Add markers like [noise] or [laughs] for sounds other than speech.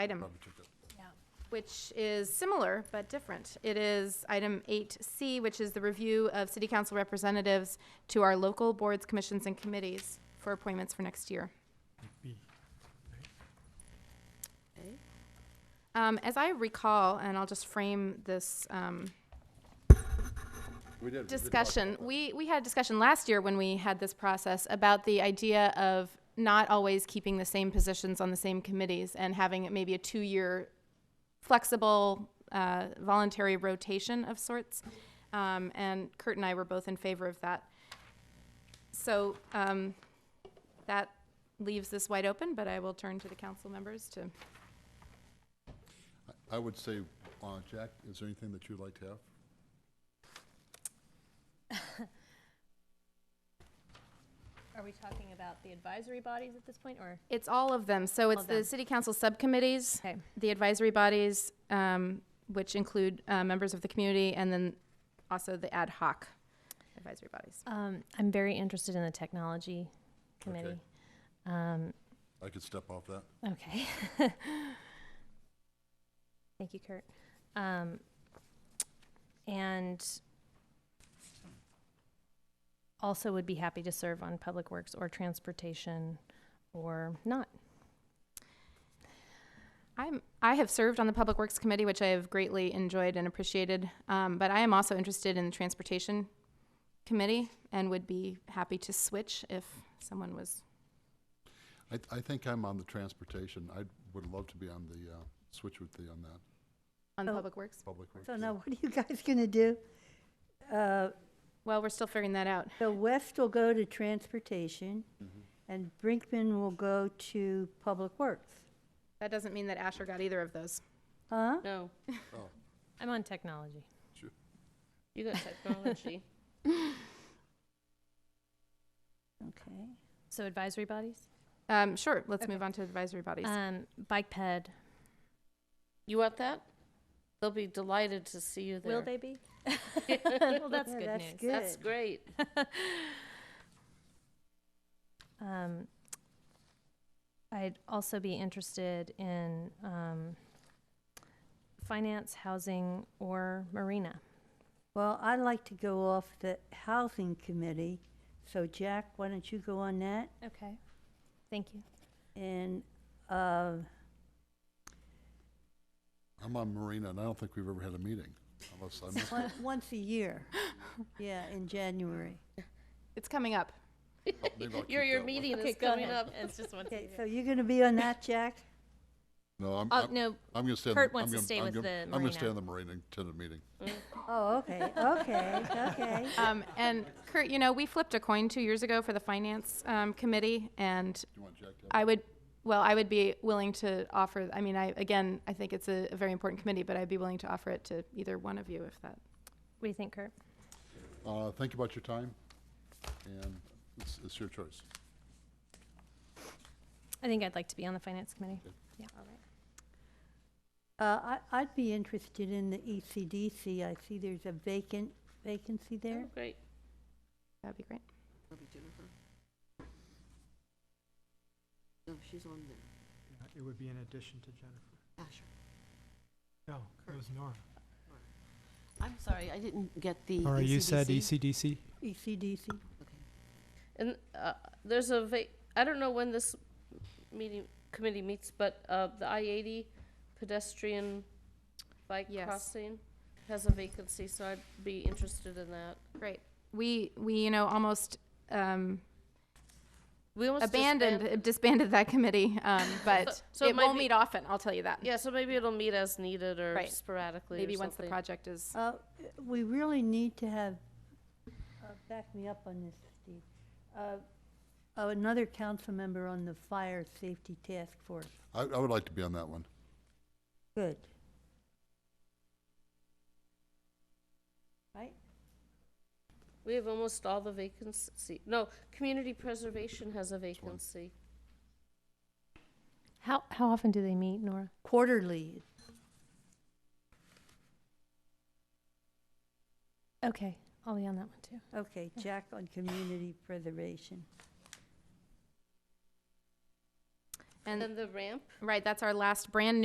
item, which is similar but different. It is item 8C, which is the review of city council representatives to our local boards, commissions, and committees for appointments for next year. Um, As I recall, and I'll just frame this um, We did. we did talk discussion. We, we had a discussion last year when we had this process about the idea of not always keeping the same positions on the same committees and having it maybe a two-year flexible, uh, voluntary rotation of sorts. Um, and Kurt and I were both in favor of that. So, um, that leaves this wide open, but I will turn to the council members to, about- I would say, uh, Jack, is there anything that you'd like to have? Are we talking about the advisory bodies at this point, or? it's all of them. So it's of the them. city council subcommittees, Okay. the advisory bodies, um, which include uh, members of the community, and then also the ad hoc advisory bodies. Um, I'm very interested in the technology committee. Um, I could step off that. okay. Thank you, Kurt. Um, and also would be happy to serve on public works or transportation or not. I'm, I have served on the Public Works Committee, which I have greatly enjoyed and appreciated, um, but I am also interested in the Transportation Committee and would be happy to switch if someone was. I, I think I'm on the transportation. I would love to be on the, uh, switch with the, on that, On the Oh. Public Works? public works. So yeah. now what are you guys [laughs] going to do? Uh, Well, we're still figuring that out. So West will go to transportation Mm-hmm. and Brinkman will go to public works. That doesn't mean that Asher got either of those. Huh? No, Oh, I'm on technology. you got technology. Okay. So advisory bodies? Um, sure, let's Okay. move on to advisory bodies. Um, bike ped. You want that? They'll be delighted to see you there. Will they be? [laughs] well, that's Yeah, good that's news. good. That's great. [laughs] Um, I'd also be interested in um, finance, housing, or marina. Well, I'd like to go off the housing committee. So Jack, why don't you go on that? Okay. Thank you. And, uh, I'm on Marina, and I don't think we've ever had a meeting, unless I [laughs] missed on- it. once a year. Yeah, in January. It's coming up. Maybe I'll keep Your, your that one. meeting Okay, is go coming ahead. up. It's just [laughs] one. Okay, so you're going to be on that, Jack? No, I'm, Oh, I'm, no, I'm gonna stay. on the- Kurt wants I'm to gonna- stay I'm with gonna- the I'm gonna Marina. stay on the Marina and attend the meeting. Oh, okay, okay, okay. Um, and Kurt, you know, we flipped a coin two years ago for the finance um, committee, and Do you want Jack to? have it? I would, well, I would be willing to offer. I mean, I again, I think it's a, a very important committee, but I'd be willing to offer it to either one of you if that. what do you think, Kurt? Uh, think about your time, and it's, it's your choice. I think I'd like to be on the finance committee. Uh, I, I'd be interested in the E ECDC. I see there's a vacant vacancy there. Oh, Great. That'd be great. That'll be Jennifer. No, Oh, she's on there. Ah, It would be in addition to Jennifer. Asher. No, Oh, it was Nora. I'm sorry, I didn't get the. Nora, you said E ECDC. ECDC? E ECDC. And uh, there's a va- I don't know when this meeting committee meets, but uh, the I eighty pedestrian bike Yes. crossing has a vacancy, so I'd be interested in that. Great. We we you know almost um, We almost abandoned [laughs] disband- disbanded. that committee, um, but [laughs] So- so it it, might won't be- meet often. I'll tell you that. Yeah, so maybe it'll meet as needed or Right. sporadically. or Maybe once the something. project is. Uh, we really need to have, uh, back me up on this, Steve. Uh, oh, another council member on the fire safety task force. I, I would like to be on that one. Good. Right? We have almost all the vacancy. No, community preservation has a one. vacancy. How, how often do they meet, Nora? Quarterly. Okay, I'll be on that one too. Okay, Jack on community preservation. And And the ramp right, that's our last brand new.